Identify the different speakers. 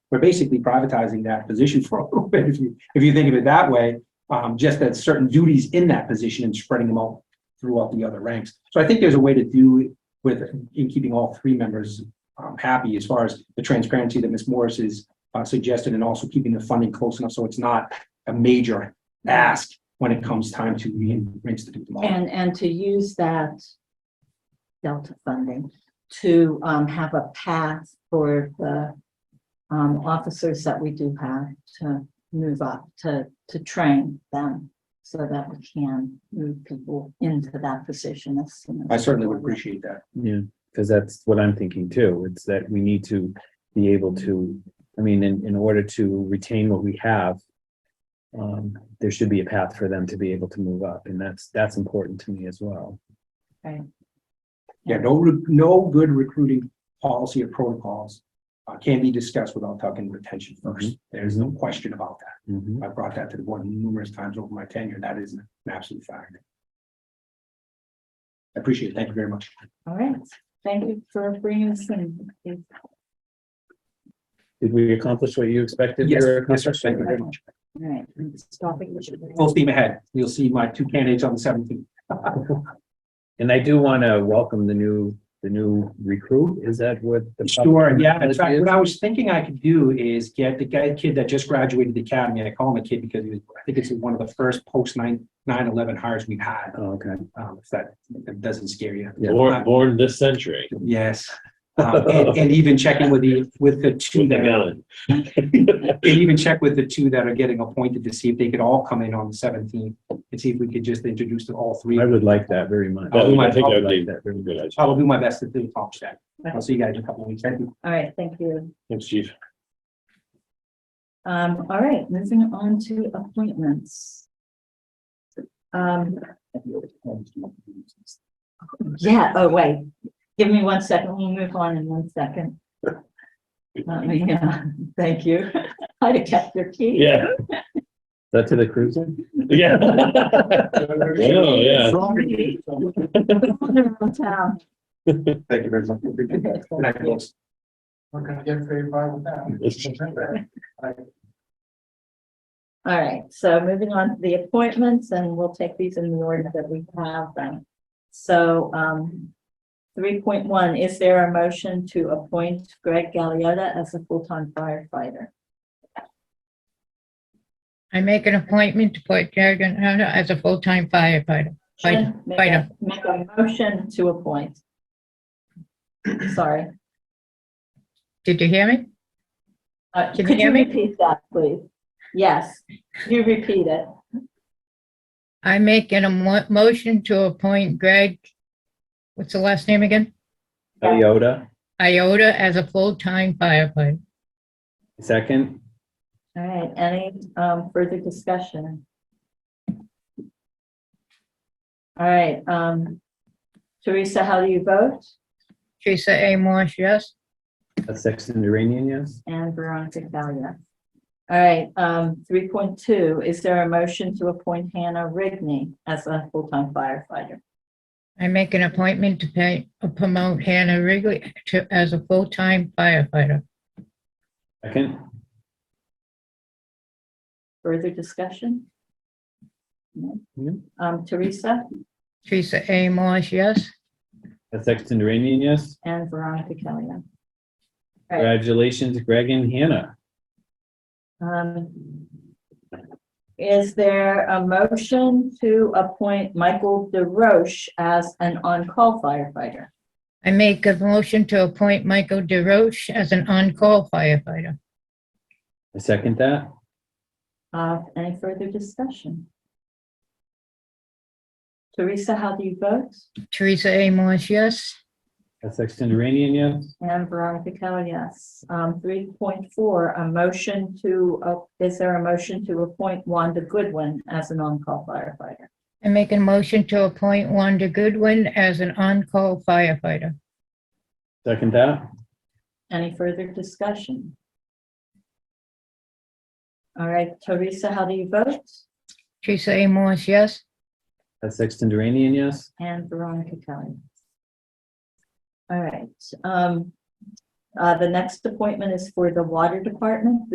Speaker 1: we're basically privatizing that position for a little bit, if you, if you think of it that way. Um, just that certain duties in that position and spreading them out throughout the other ranks. So I think there's a way to do it with, in keeping all three members um, happy as far as the transparency that Ms. Morris is uh, suggested and also keeping the funding close enough so it's not a major ask when it comes time to re- reinstitute them all.
Speaker 2: And, and to use that Delta funding to um, have a path for the um, officers that we do have to move up, to, to train them so that we can move people into that position as soon as.
Speaker 1: I certainly would appreciate that.
Speaker 3: Yeah, because that's what I'm thinking too. It's that we need to be able to, I mean, in, in order to retain what we have, um, there should be a path for them to be able to move up, and that's, that's important to me as well.
Speaker 1: Yeah, no, re- no good recruiting policy or protocols uh, can be discussed without talking retention first. There's no question about that. I brought that to the board numerous times over my tenure. That is an absolute fact. I appreciate it. Thank you very much.
Speaker 2: All right, thank you for bringing us in.
Speaker 3: Did we accomplish what you expected? we
Speaker 1: Yes,
Speaker 3: were
Speaker 1: yes, sir.
Speaker 3: accomplishing?
Speaker 1: Thank you very much.
Speaker 2: All right, stopping.
Speaker 1: Full steam ahead. You'll see my two candidates on the seventeenth.
Speaker 3: And I do want to welcome the new, the new recruit. Is that what? the
Speaker 1: Sure, yeah. In
Speaker 3: public
Speaker 1: fact,
Speaker 3: is?
Speaker 1: what I was thinking I could do is get the guy, kid that just graduated the academy, I call him a kid because he was, I think it's one of the first post nine, nine eleven hires we've had.
Speaker 3: Oh, Okay.
Speaker 1: Um, if that, if that doesn't scare you.
Speaker 3: Yeah.
Speaker 1: Uh,
Speaker 4: Born, born this century.
Speaker 1: Yes. Um, and, and even checking with the, with the two
Speaker 4: With the
Speaker 1: that, are-
Speaker 4: gun.
Speaker 1: and even check with the two that are getting appointed to see if they could all come in on the seventeenth and see if we could just introduce to all three.
Speaker 3: I would like that very much.
Speaker 1: That would- Oh, I think
Speaker 3: I
Speaker 4: that
Speaker 3: would
Speaker 4: would be-
Speaker 3: like that very much.
Speaker 4: Good idea.
Speaker 1: I'll do my best to do top that. I'll see you guys in a couple of weeks. Thank you.
Speaker 2: All right, thank you.
Speaker 4: Thanks, chief.
Speaker 2: Um, all right, moving on to appointments. Um, yeah, oh, wait, give me one second, we'll move on in one second. Uh, yeah, thank you. I'd have kept your key.
Speaker 4: Yeah,
Speaker 3: Is That to the cruiser?
Speaker 4: yeah. Oh, yeah.
Speaker 2: Town.
Speaker 1: Thank you very much. Good night, folks.
Speaker 5: We're gonna get very far with that.
Speaker 2: All right, so moving on to the appointments, and we'll take these in the order that we have them. So, um, three point one, is there a motion to appoint Greg Galliota as a full-time firefighter?
Speaker 6: I make an appointment to put Jared Hunter as a full-time firefighter. Fight-
Speaker 2: Make
Speaker 6: fight
Speaker 2: a,
Speaker 6: him.
Speaker 2: make a motion to appoint. Sorry,
Speaker 6: Did you hear me?
Speaker 2: uh,
Speaker 6: Can you
Speaker 2: could you
Speaker 6: hear me?
Speaker 2: repeat that, please? Yes, you repeat it.
Speaker 6: I make an emo- motion to appoint Greg, what's the last name again?
Speaker 3: Toyota,
Speaker 6: Iota as a full-time firefighter.
Speaker 3: second?
Speaker 2: All right, any um further discussion? All right, um, Teresa, how do you vote?
Speaker 6: Teresa A. Marsh, yes.
Speaker 3: A Sexton Duranian, yes?
Speaker 2: And Veronica Valia. All right, um, three point two, is there a motion to appoint Hannah Rigney as a full-time firefighter?
Speaker 6: I make an appointment to pay, uh, promote Hannah Wrigley to, as a full-time firefighter.
Speaker 3: Second?
Speaker 2: Further discussion? No.
Speaker 3: No.
Speaker 2: Um, Teresa
Speaker 6: Teresa A. Marsh, yes.
Speaker 3: A Sexton Duranian, yes?
Speaker 2: and Veronica Valia. All right,
Speaker 3: Congratulations, Greg and Hannah.
Speaker 2: um, is there a motion to appoint Michael DeRoche as an on-call firefighter?
Speaker 6: I make a motion to appoint Michael DeRoche as an on-call firefighter.
Speaker 3: I second that.
Speaker 2: Uh, any further discussion? Teresa, how do you vote?
Speaker 6: Teresa A. Marsh, yes.
Speaker 3: A Sexton Duranian, yes?
Speaker 2: And Veronica Kell, yes. Um, three point four, a motion to, uh, is there a motion to appoint Wanda Goodwin as an on-call firefighter?
Speaker 6: I make a motion to appoint Wanda Goodwin as an on-call firefighter.
Speaker 3: Second that.
Speaker 2: Any further discussion? All right, Teresa, how do you vote?
Speaker 6: Teresa A. Morse, yes.
Speaker 3: A Sexton Duranian, yes?
Speaker 2: And Veronica Kell. yes. All right, um, Uh, the next appointment is for the water department.